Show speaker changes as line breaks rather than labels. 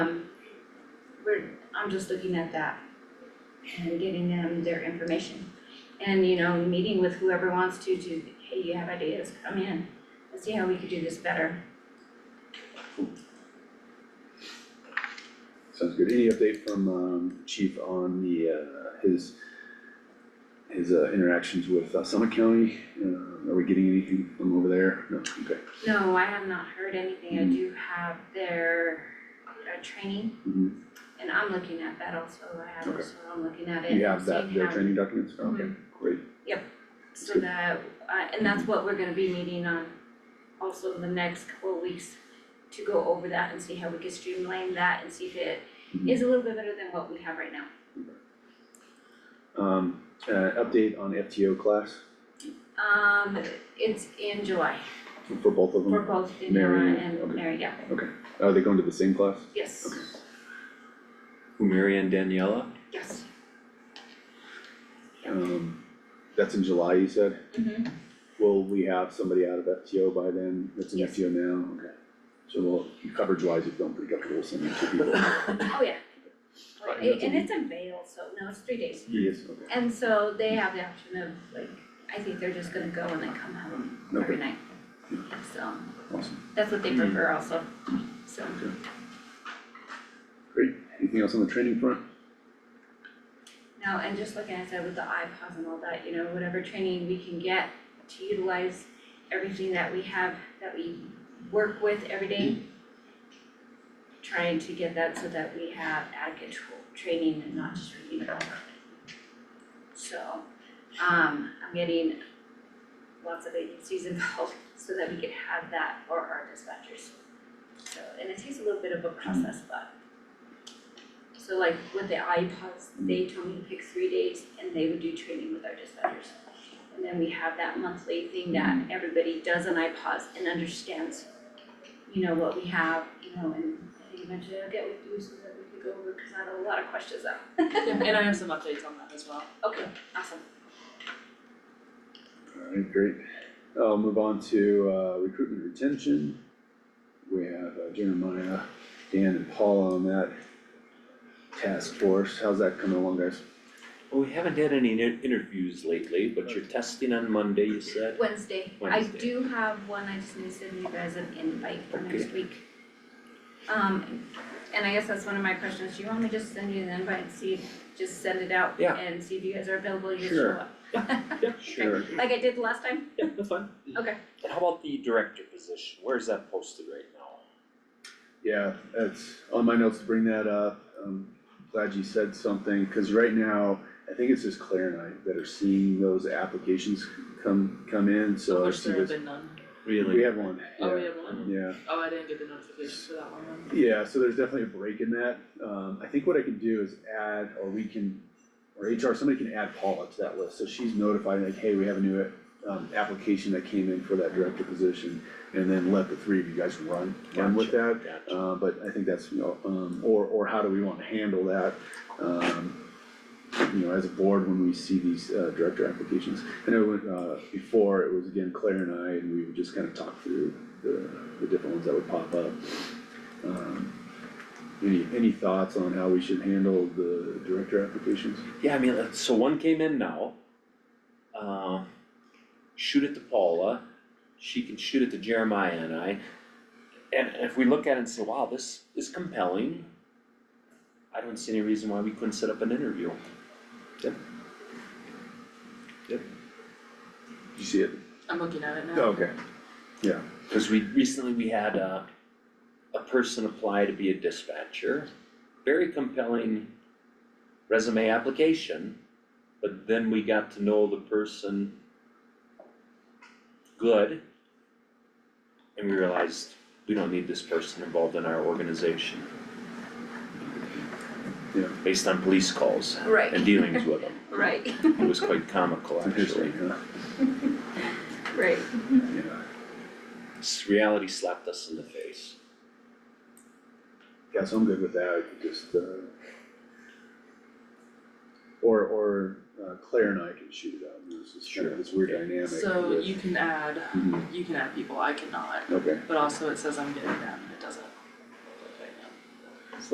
Um, we're, I'm just looking at that and getting them their information. And, you know, meeting with whoever wants to, to, hey, you have ideas, come in, let's see how we could do this better.
Sounds good. Any update from um chief on the uh his his uh interactions with uh, Summit County? Uh are we getting anything from over there? No, okay.
No, I have not heard anything, I do have their, uh, training,
Mhm.
and I'm looking at that also, I have,
Okay.
so I'm looking at it.
You have that,
seeing
their
how-
training documents? Okay,
Mhm.
great.
So that, uh, and that's what we're gonna be meeting on also in the next couple of weeks to go over that and see how we can streamline that and see if it
Mm-hmm.
is a little bit better than what we have right now.
Um, uh, update on FTO class
Um, it's in July,
for both of
for
them?
both
Mary,
Daniela and
okay.
Mary, yeah,
Are they going to the same class?
yes,
Who, Mary and Daniela?
yes. Yeah.
Um, that's in July, you said?
Mm-hmm,
Will we have somebody out of FTO by then? That's in
Yes.
FTO now? Okay. So we'll, coverage wise, if I'm pretty comfortable sending two people.
oh yeah.
Right,
Wait,
that's
And
a-
it's in Vail, so no, it's three days.
Yes, okay.
And so they have the option of like, I think they're just gonna go and then come home every
Okay.
night. So
Awesome.
that's what they prefer also, so.
Great. Anything else on the training front?
No, and just like I said with the iPods and all that, you know, whatever training we can get to utilize everything that we have, that we work with every day. Trying to get that so that we have adequate tr- training and not just reading about it. So, um, I'm getting lots of agencies involved so that we could have that for our dispatchers. So, and it takes a little bit of a process, but so like with the iPods, they told me to pick three days and they would do training with our dispatchers. And then we have that monthly thing that everybody does on iPods and understands, you know, what we have, you know, and I think eventually I'll get with you so that we could go over, cause I have a lot of questions out.
Yeah, and I have some updates on that as well.
Okay, awesome.
Alright, great. I'll move on to uh recruitment and retention. We have uh, Jeremiah, Dan and Paula on that task force. How's that coming along, guys?
Well, we haven't had any inter- interviews lately, but you're testing on Monday, you said?
Wednesday, I
Wednesday.
do have one, I just need to send you guys an invite for next
Okay.
week. Um, and I guess that's one of my questions, do you want me to just send you an invite and see, if- just send it out
Yeah.
and see if you guys are available, you just show
Sure.
up?
Yeah, sure.
Like I did last time?
Yeah, that's fine.
Okay.
And how about the director position? Where's that posted right now?
Yeah, it's on my notes to bring that up. Um glad you said something, cause right now, I think it's just Claire and I that are seeing those applications come come in, so I
Which
see
there have
this.
been none.
We have one,
Oh, we
yeah,
have one?
yeah.
Oh, I didn't get the notification for that one then.
Yeah, so there's definitely a break in that. Um, I think what I can do is add, or we can, or HR, somebody can add Paula to that list, so she's notified, like, hey, we have a new um, application that came in for that director position, and then let the three of you guys run, run with that.
Gotcha.
Uh, but I think that's, you know, um, or, or how do we wanna handle that? Um, you know, as a board, when we see these, uh, director applications. I know, when, uh, before, it was again Claire and I, and we would just kind of talk through the, the different ones that would pop up. Um, Any, any thoughts on how we should handle the director applications?
Yeah, I mean, uh, so one came in now. Uh, shoot it to Paula, she can shoot it to Jeremiah and I. And if we look at it and say, wow, this is compelling, I don't see any reason why we couldn't set up an interview.
Did you see it?
I'm looking at it now.
Okay.
Cause we, recently we had a, a person apply to be a dispatcher, very compelling resume application. But then we got to know the person good. And we realized we don't need this person involved in our organization.
Yeah.
Based on police calls and
Right,
dealings with them,
right,
it was quite comical actually.
Interesting, huh?
right.
Yeah.
S- Reality slapped us in the face.
Yeah, so I'm good with that, I could just, uh. Or, or uh, Claire and I can shoot it out, and this is kind of
Sure.
this weird dynamic.
So
with-
you can add,
Mhm,
you can add people, I cannot,
Okay,
but also it says I'm getting them, and it doesn't.